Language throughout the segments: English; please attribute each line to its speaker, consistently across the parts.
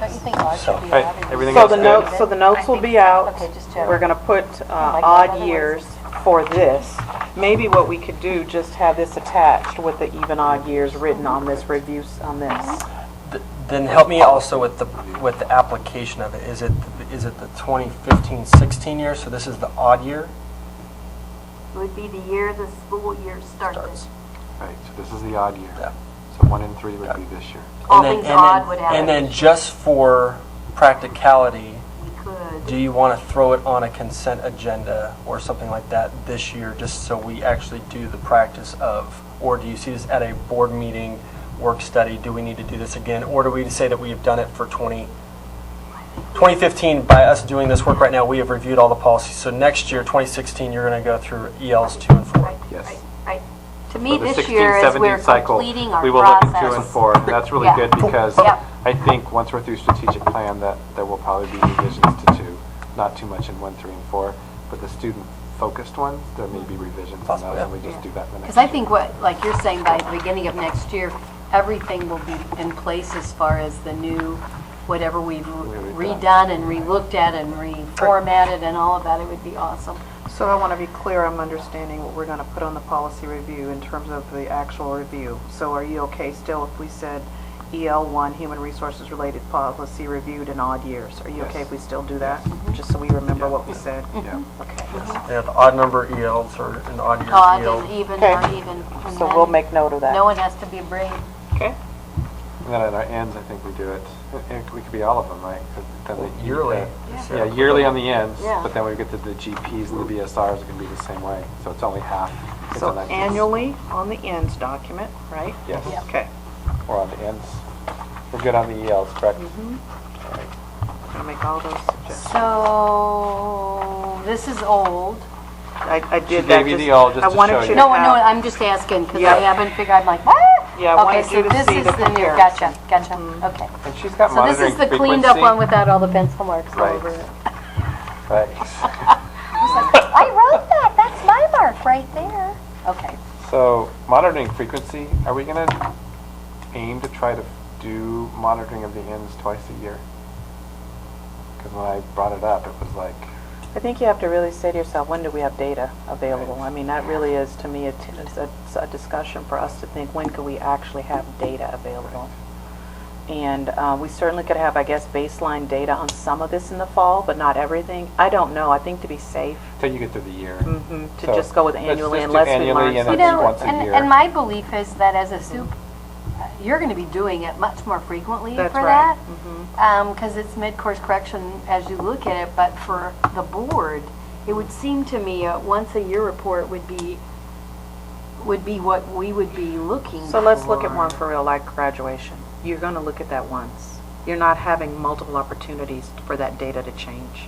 Speaker 1: Don't you think ours
Speaker 2: So,
Speaker 1: should be
Speaker 2: right,
Speaker 1: odd?
Speaker 2: everything
Speaker 3: So
Speaker 2: else
Speaker 3: the
Speaker 2: good?
Speaker 3: notes, so the notes will be out.
Speaker 1: Okay, just check.
Speaker 3: We're gonna put uh,
Speaker 1: like that.
Speaker 3: odd
Speaker 1: Otherwise-
Speaker 3: years for this. Maybe what we could do, just have this attached with the even odd years written on this review, s- on this.
Speaker 2: Th- Then help me also with the, with the application of it. Is it, is it the 2015, 16 year? So this is the odd year?
Speaker 4: would be the year the school year started.
Speaker 2: Starts.
Speaker 5: Right, so this is the odd year.
Speaker 2: Yeah.
Speaker 5: So one in three would be this year.
Speaker 4: All
Speaker 2: And then-
Speaker 4: things
Speaker 2: and then-
Speaker 4: odd would
Speaker 2: And
Speaker 4: average.
Speaker 2: then just for practicality,
Speaker 4: We could,
Speaker 2: do you want to throw it on a consent agenda or something like that this year, just so we actually do the practice of? Or do you see this at a board meeting, work study, do we need to do this again? Or do we say that we have done it for 20, 2015, by us doing this work right now, we have reviewed all the policies. So next year, 2016, you're going to go through ELs 2 and 4.
Speaker 4: right,
Speaker 5: Yes.
Speaker 4: right, right. To
Speaker 5: For
Speaker 4: me,
Speaker 5: the
Speaker 4: this
Speaker 5: 16,
Speaker 4: year is we're
Speaker 5: 17 cycle,
Speaker 4: completing our process.
Speaker 5: we will look at two and four. And that's really
Speaker 4: Yeah.
Speaker 5: good because
Speaker 4: Yep.
Speaker 5: I think once we're through strategic plan, that there will probably be revisions to two, not too much in one, three, and four. But the student-focused ones, there may be revisions on
Speaker 2: Possible,
Speaker 5: those,
Speaker 2: yeah.
Speaker 5: and we just do that the next
Speaker 1: Because
Speaker 5: year.
Speaker 1: I think what, like you're saying, by the beginning of next year, everything will be in place as far as the new, whatever we've
Speaker 5: Redone.
Speaker 1: redone and relooked at and reformatted and all of that, it would be awesome.
Speaker 3: So I want to be clear, I'm understanding what we're going to put on the policy review in terms of the actual review. So are you okay still if we said EL1, Human Resources Related Policy Reviewed in odd years? Are you okay
Speaker 5: Yes. Mm-hmm.
Speaker 3: if we still do that? Just so we remember what we said?
Speaker 5: Yeah.
Speaker 3: Okay.
Speaker 2: Yeah, the odd number ELs or an odd year E
Speaker 1: Odd
Speaker 2: EL.
Speaker 1: and E even
Speaker 3: Okay.
Speaker 1: or even. and
Speaker 3: So we'll
Speaker 1: then
Speaker 3: make note of that.
Speaker 1: No one has to be brave.
Speaker 3: Okay.
Speaker 5: And then at our ends, I think we do it, it we could be all of them, right? 'Cause then they-
Speaker 2: Yearly.
Speaker 5: Yeah, yearly on the ends,
Speaker 1: Yeah.
Speaker 5: but then we get to the GPs and the BSRs, it can be the same way. So it's only half. It's
Speaker 3: So
Speaker 5: on that-
Speaker 3: annually on the ends document, right?
Speaker 5: Yes. Yeah.
Speaker 3: Okay.
Speaker 5: Or on the ends. We're good on the ELs, correct?
Speaker 1: Mm-hmm.
Speaker 3: I'm going to make all those suggestions.
Speaker 1: So, this is old.
Speaker 3: I, I did
Speaker 5: She
Speaker 3: that
Speaker 5: gave you the all just
Speaker 3: I
Speaker 5: to
Speaker 3: wanted
Speaker 5: show
Speaker 3: you
Speaker 5: you.
Speaker 3: to
Speaker 1: No, no,
Speaker 3: have-
Speaker 1: I'm just asking because I
Speaker 3: Yeah.
Speaker 1: haven't figured, I'm like, what?
Speaker 3: Yeah, I wanted you to
Speaker 1: Okay, so
Speaker 3: see
Speaker 1: this is
Speaker 3: the
Speaker 1: the new,
Speaker 3: comparison. Mm-hmm.
Speaker 1: gotcha, gotcha, okay.
Speaker 5: And she's got
Speaker 1: So this
Speaker 5: monitoring
Speaker 1: is the
Speaker 5: frequency.
Speaker 1: cleaned up one without all the pencil marks all
Speaker 5: Right.
Speaker 1: over it.
Speaker 5: Right.
Speaker 1: I wrote that, that's my mark right there. Okay.
Speaker 5: So monitoring frequency, are we going to aim to try to do monitoring of the ends twice a year? Because when I brought it up, it was like,
Speaker 3: I think you have to really say to yourself, when do we have data available? I mean, that really is, to me, a t- is a it's a discussion for us to think, when could we actually have data available? And uh, we certainly could have, I guess, baseline data on some of this in the fall, but not everything. I don't know, I think to be safe,
Speaker 5: till you get through the year.
Speaker 1: Mm-hmm.
Speaker 3: mhm, to
Speaker 5: So
Speaker 3: just go with
Speaker 5: let's
Speaker 3: annually
Speaker 5: just do
Speaker 3: unless we
Speaker 5: annually
Speaker 3: learn
Speaker 5: and
Speaker 1: You
Speaker 3: something.
Speaker 5: then
Speaker 1: know,
Speaker 5: once a
Speaker 1: and,
Speaker 5: year.
Speaker 1: and my belief is that as a soup, you're gonna be doing it much more frequently for
Speaker 3: That's right. Mm-hmm.
Speaker 1: that. Um, cause it's mid-course correction as you look at it, but for the board, it would seem to me a once-a-year report would be, would be what we would be looking for.
Speaker 3: So let's look at one for real, like graduation. You're going to look at that once. You're not having multiple opportunities for that data to change.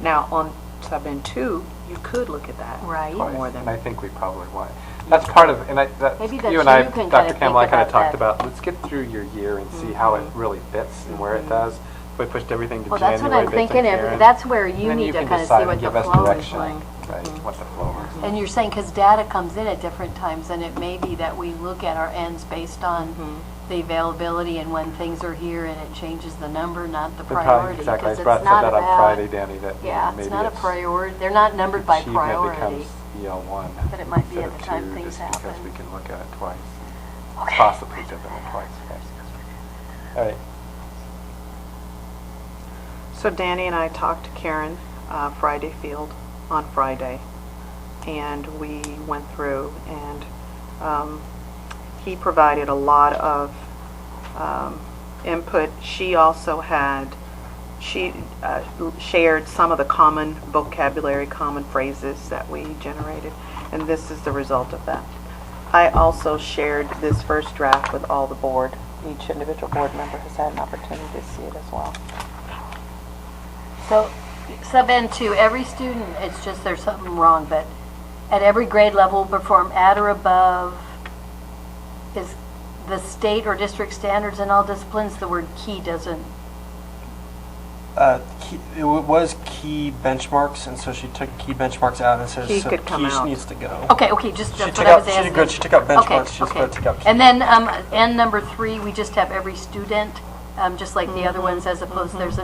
Speaker 3: Now, on sub N two, you could look at that.
Speaker 1: Right.
Speaker 5: Twice,
Speaker 3: More than-
Speaker 5: And I think we probably want. That's part of, and I, that,
Speaker 1: Maybe
Speaker 5: you
Speaker 1: that
Speaker 5: and I,
Speaker 1: you can kinda
Speaker 5: Dr.
Speaker 1: think
Speaker 5: Campbell, I kind
Speaker 1: about
Speaker 5: of talked
Speaker 1: that. Mm-hmm.
Speaker 5: about, let's get through your year and see how it really fits and where it does. We pushed everything to
Speaker 1: Well,
Speaker 5: January.
Speaker 1: that's what I'm
Speaker 5: based on
Speaker 1: thinking of.
Speaker 5: Karen,
Speaker 1: That's where you
Speaker 5: and then
Speaker 1: need to
Speaker 5: can
Speaker 1: kinda see
Speaker 5: decide and
Speaker 1: what the
Speaker 5: give us
Speaker 1: flow is
Speaker 5: direction,
Speaker 1: like. Mm-hmm.
Speaker 5: Right, what the flow is.
Speaker 1: And you're saying, because data comes in at different times, and it may be that we look at our ends based on the availability and when things are here, and it changes the number, not the
Speaker 5: And probably-
Speaker 1: priority.
Speaker 5: Exactly, I
Speaker 1: 'cause it's
Speaker 5: brought, said
Speaker 1: not
Speaker 5: that on
Speaker 1: about-
Speaker 5: Friday, Danny, that you know,
Speaker 1: Yeah,
Speaker 5: maybe
Speaker 1: it's
Speaker 5: it's.
Speaker 1: not a priority, they're not numbered by priority.
Speaker 5: Achievement becomes EL one.
Speaker 1: But it might be
Speaker 5: instead
Speaker 1: at
Speaker 5: of
Speaker 1: the time
Speaker 5: two,
Speaker 1: things
Speaker 5: just Because
Speaker 1: happen.
Speaker 5: we can look at it twice,
Speaker 1: Okay.
Speaker 5: possibly do them twice. All right,
Speaker 3: So Danny and I talked to Karen uh, Friday Field on Friday, and we went through, and um, he provided a lot of um, input. She also had, she uh, shared some of the common vocabulary, common phrases that we generated, and this is the result of that. I also shared this first draft with all the board. Each individual board member has had an opportunity to see it as well.
Speaker 1: So, sub N2, every student, it's just there's something wrong, but at every grade level, perform at or above, is the state or district standards in all disciplines, the word key doesn't
Speaker 2: Uh, key, it wa- was key benchmarks, and so she took key benchmarks out and says
Speaker 3: Key
Speaker 2: so
Speaker 3: could come
Speaker 2: key
Speaker 3: out.
Speaker 2: needs to go.
Speaker 1: Okay, okay, just,
Speaker 2: She
Speaker 1: that's what
Speaker 2: took
Speaker 1: I was
Speaker 2: out. She
Speaker 1: asking.
Speaker 2: did good. She took out benchmarks.
Speaker 1: Okay,
Speaker 2: she just
Speaker 1: okay.
Speaker 2: took out. Key.
Speaker 1: And then, um, and number three, we just have every student um, just like the other ones, as opposed, there's